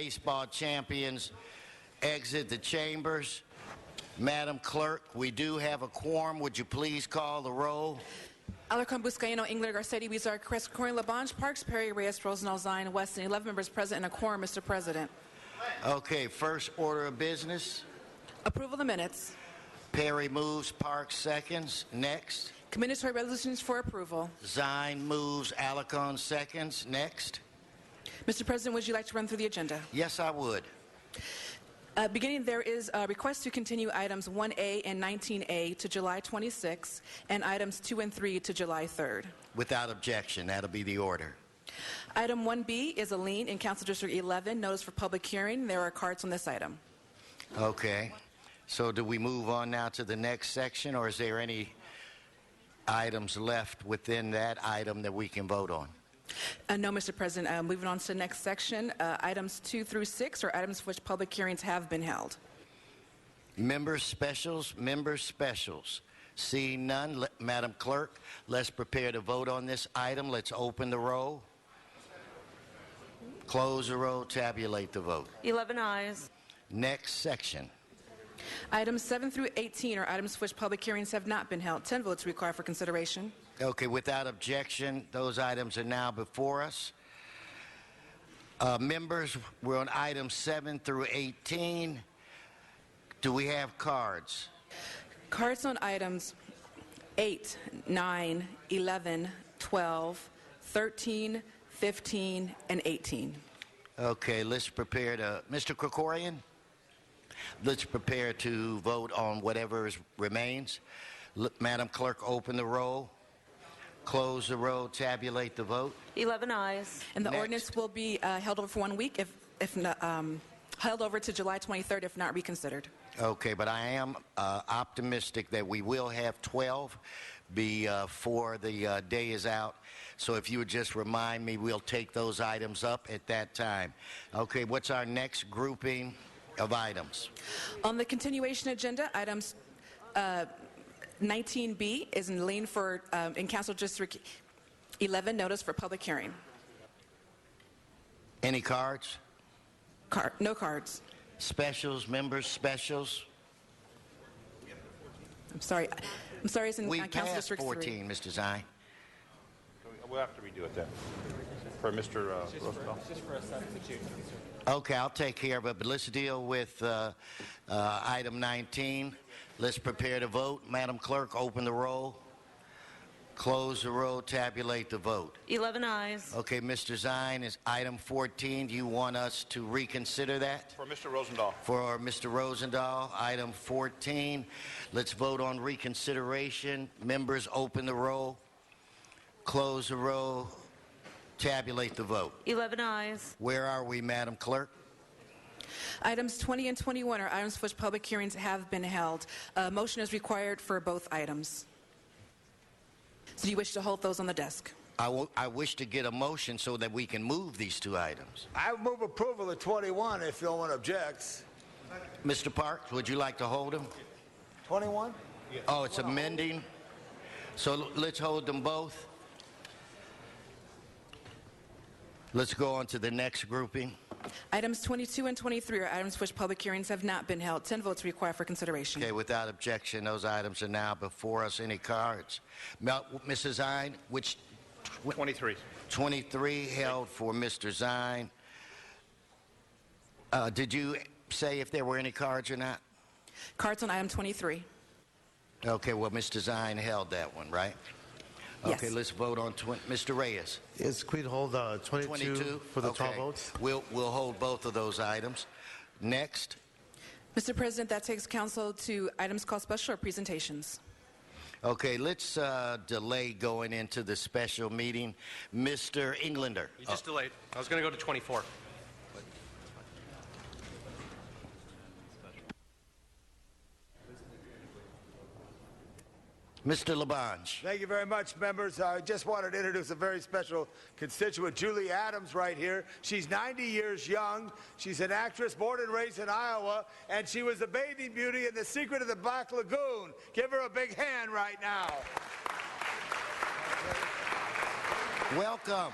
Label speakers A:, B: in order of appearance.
A: baseball champions exit the chambers. Madam Clerk, we do have a quorum. Would you please call the roll?
B: Alarcon, Buscaino, Engler, Garcetti, Weezer, Cres, Corey, Labange, Parks, Perry, Reyes, Rosendahl, Zine, Weston, 11 members present and a quorum, Mr. President.
A: Okay, first order of business.
B: Approval of the minutes.
A: Perry moves, Parks seconds. Next.
B: Commendatory resolutions for approval.
A: Zine moves, Alarcon seconds. Next.
B: Mr. President, would you like to run through the agenda?
A: Yes, I would.
B: Uh, Beginning, there is a request to continue items 1A and 19A to July 26, and items 2 and 3 to July 3rd.
A: Without objection, that'll be the order.
B: Item 1B is a lien in Council District 11, notice for public hearing. There are cards on this item.
A: Okay. So do we move on now to the next section, or is there any items left within that item that we can vote on?
B: Uh, No, Mr. President, Uh, moving on to the next section, uh, items 2 through 6 are items for which public hearings have been held.
A: Member specials, member specials. Seeing none, le- Madam Clerk, let's prepare to vote on this item. Let's open the roll, close the roll, tabulate the vote.
C: 11 eyes.
A: Next section.
B: Items 7 through 18 are items for which public hearings have not been held. 10 votes required for consideration.
A: Okay, without objection, those items are now before us. Uh, Members, we're on items 7 through 18. Do we have cards?
B: Cards on items 8, 9, 11, 12, 13, 15, and 18.
A: Okay, let's prepare to, Mr. Krikorian, let's prepare to vote on whatever is- remains. L- Madam Clerk, open the roll, close the roll, tabulate the vote.
C: 11 eyes.
B: And the
A: Next.
B: ordinance will be uh, held over for one week, if, if not, um, held over to July 23rd if not reconsidered.
A: Okay, but I am uh, optimistic that we will have 12 before the uh, day is out. So if you would just remind me, we'll take those items up at that time. Okay, what's our next grouping of items?
B: On the continuation agenda, items uh, 19B is in lien for, um, in Council District 11, notice for public hearing.
A: Any cards?
B: Card, no cards.
A: Specials, members, specials?
B: I'm sorry. I'm sorry, it's in
A: We
B: uh, Council
A: passed
B: District 3.
A: 14, Mr. Zine.
D: We'll have to redo it then, for Mr. uh, Rosenthal.
A: Okay, I'll take care of it, but let's deal with uh, uh, item 19. Let's prepare to vote. Madam Clerk, open the roll, close the roll, tabulate the vote.
C: 11 eyes.
A: Okay, Mr. Zine, is item 14, do you want us to reconsider that?
D: For Mr. Rosendahl.
A: For Mr. Rosendahl, item 14, let's vote on reconsideration. Members, open the roll, close the roll, tabulate the vote.
C: 11 eyes.
A: Where are we, Madam Clerk?
B: Items 20 and 21 are items for which public hearings have been held. A motion is required for both items. So do you wish to hold those on the desk?
A: I wo- I wish to get a motion so that we can move these two items.
E: I move approval of 21 if no one objects.
A: Mr. Parks, would you like to hold them?
E: 21?
A: Oh, it's amending? So l- let's hold them both. Let's go on to the next grouping.
B: Items 22 and 23 are items for which public hearings have not been held. 10 votes required for consideration.
A: Okay, without objection, those items are now before us. Any cards? Mel- Mrs. Zine, which
D: 23.
A: 23 held for Mr. Zine. Uh, Did you say if there were any cards or not?
B: Cards on item 23.
A: Okay, well, Mr. Zine held that one, right? Okay,
B: Yes.
A: let's vote on, twen- Mr. Reyes,
F: Yes, could we hold uh, 22
A: 22?
F: for the 12
A: Okay.
F: votes?
A: We'll, we'll hold both of those items. Next,
B: Mr. President, that takes council to items called special or presentations.
A: okay, let's uh, delay going into the special meeting. Mr. Englander,
G: You just delayed. I was going to go to 24.
A: Mr. Labange.
E: Thank you very much, members. I just wanted to introduce a very special constituent, Julie Adams, right here. She's 90 years young. She's an actress born and raised in Iowa, and she was a bathing beauty in The Secret of the Black Lagoon. Give her a big hand right now.
A: Welcome.